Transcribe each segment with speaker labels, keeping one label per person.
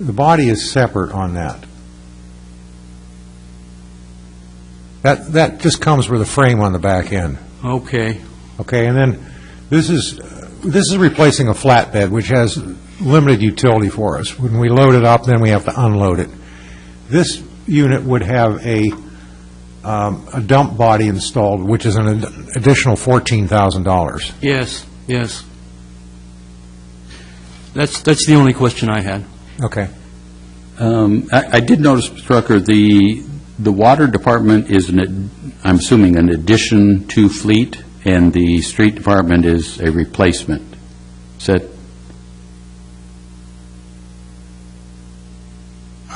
Speaker 1: the body is separate on that. That, that just comes with a frame on the back end,
Speaker 2: Okay,
Speaker 1: okay? And then, this is, this is replacing a flatbed, which has limited utility for us. When we load it up, then we have to unload it. This unit would have a, um, a dump body installed, which is an ad- additional $14,000.
Speaker 2: yes, yes. That's, that's the only question I had.
Speaker 1: Okay.
Speaker 3: Um, I I did notice, Mr. Rucker, the, the water department is, an ad- I'm assuming, an addition to fleet, and the street department is a replacement. Is that,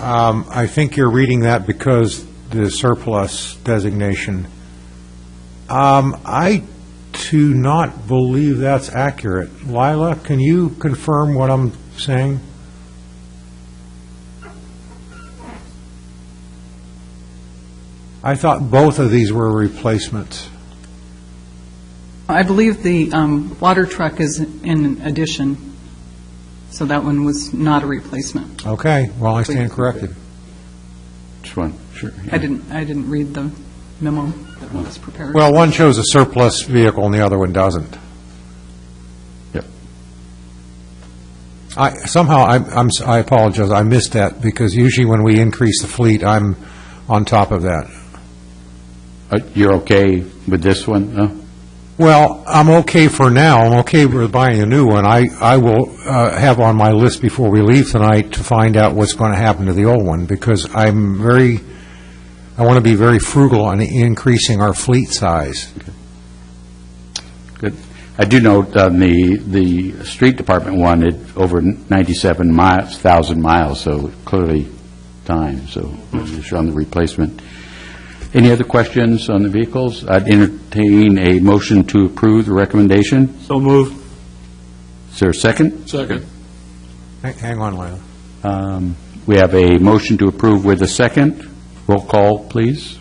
Speaker 1: Um, I think you're reading that because the surplus designation. Um, I do not believe that's accurate. Lila, can you confirm what I'm saying? I thought both of these were replacements.
Speaker 4: I believe the um, water truck is in addition, so that one was not a replacement.
Speaker 1: Okay, well, I stand corrected.
Speaker 3: just one, sure.
Speaker 4: I didn't, I didn't read the memo that was prepared.
Speaker 1: Well, one shows a surplus vehicle and the other one doesn't.
Speaker 3: Yep.
Speaker 1: I, somehow, I'm- I'm, s- I apologize, I missed that, because usually when we increase the fleet, I'm on top of that.
Speaker 3: Uh, You're okay with this one? No?
Speaker 1: Well, I'm okay for now, I'm okay with buying a new one. I, I will uh, have on my list before we leave tonight to find out what's going to happen to the old one, because I'm very, I want to be very frugal on increasing our fleet size.
Speaker 3: Good. I do note on the, the street department one, it, over 97 miles, 1,000 miles, so clearly time, so it's on the replacement. Any other questions on the vehicles? I'd entertain a motion to approve the recommendation.
Speaker 2: So moved.
Speaker 3: Is there a second?
Speaker 2: Second.
Speaker 1: Hang- Hang on, Lila.
Speaker 3: Um, We have a motion to approve with a second. Roll call, please.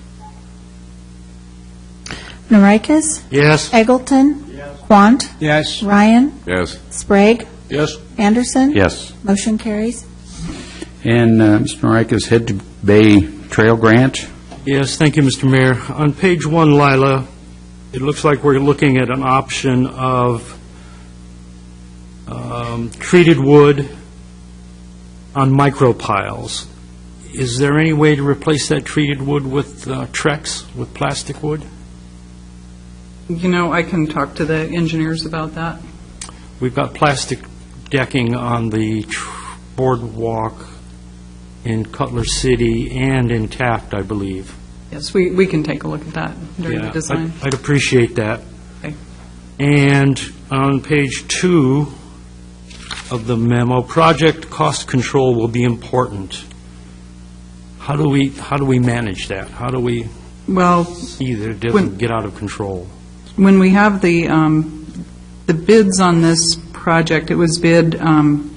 Speaker 5: Norikis?
Speaker 2: Yes.
Speaker 5: Eggleton? Quant?
Speaker 2: Yes.
Speaker 5: Ryan?
Speaker 6: Yes.
Speaker 5: Sprague?
Speaker 6: Yes.
Speaker 5: Anderson?
Speaker 3: Yes.
Speaker 5: Motion carries.
Speaker 3: And uh, Mr. Norikis, Head to Bay Trail Grant?
Speaker 2: Yes, thank you, Mr. Mayor. On page one, Lila, it looks like we're looking at an option of um, treated wood on micropiles. Is there any way to replace that treated wood with uh, Trex, with plastic wood?
Speaker 4: You know, I can talk to the engineers about that.
Speaker 2: We've got plastic decking on the tr- boardwalk in Cutler City and in Taft, I believe.
Speaker 4: Yes, we, we can take a look at that during
Speaker 2: Yeah,
Speaker 4: the
Speaker 2: I'd-
Speaker 4: design.
Speaker 2: I'd appreciate that.
Speaker 4: Okay.
Speaker 2: And on page two of the memo, project cost control will be important. How do we, how do we manage that? How do we
Speaker 4: Well,
Speaker 2: see that it
Speaker 4: When-
Speaker 2: doesn't get out of control?
Speaker 4: when we have the, um, the bids on this project, it was bid, um,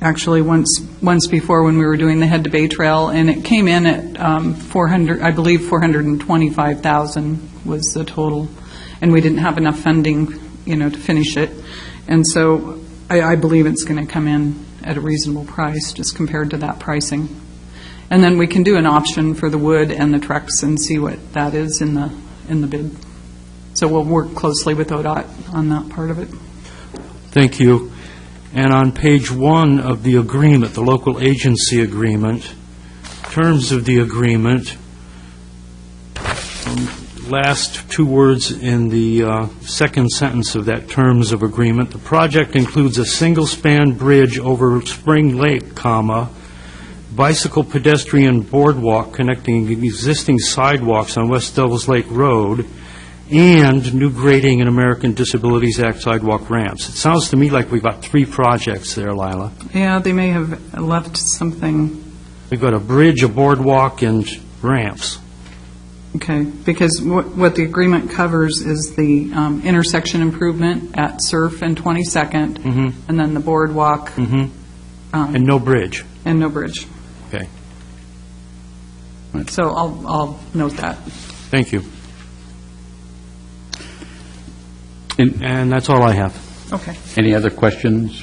Speaker 4: actually, once, once before when we were doing the Head to Bay Trail, and it came in at um, 400, I believe 425,000 was the total, and we didn't have enough funding, you know, to finish it. And so I, I believe it's going to come in at a reasonable price, just compared to that pricing. And then we can do an option for the wood and the trucks and see what that is in the, in the bid. So we'll work closely with ODOT on that part of it.
Speaker 2: Thank you. And on page one of the agreement, the local agency agreement, terms of the agreement, um, last two words in the uh, second sentence of that terms of agreement, the project includes a single-span bridge over Spring Lake, comma, bicycle pedestrian boardwalk connecting existing sidewalks on West Devils Lake Road, and new grading and American Disabilities Act sidewalk ramps. It sounds to me like we've got three projects there, Lila.
Speaker 4: Yeah, they may have left something,
Speaker 2: We've got a bridge, a boardwalk, and ramps.
Speaker 4: okay, because what, what the agreement covers is the um, intersection improvement at Surf and 22nd,
Speaker 2: Mhm.
Speaker 4: and then the boardwalk
Speaker 2: Mm-hmm.
Speaker 4: um,
Speaker 2: And no bridge.
Speaker 4: Mm-hmm. and no bridge.
Speaker 2: Okay.
Speaker 4: So I'll, I'll note that.
Speaker 2: Thank you.
Speaker 3: And-
Speaker 2: And that's all I have.
Speaker 4: Okay.
Speaker 3: Any other questions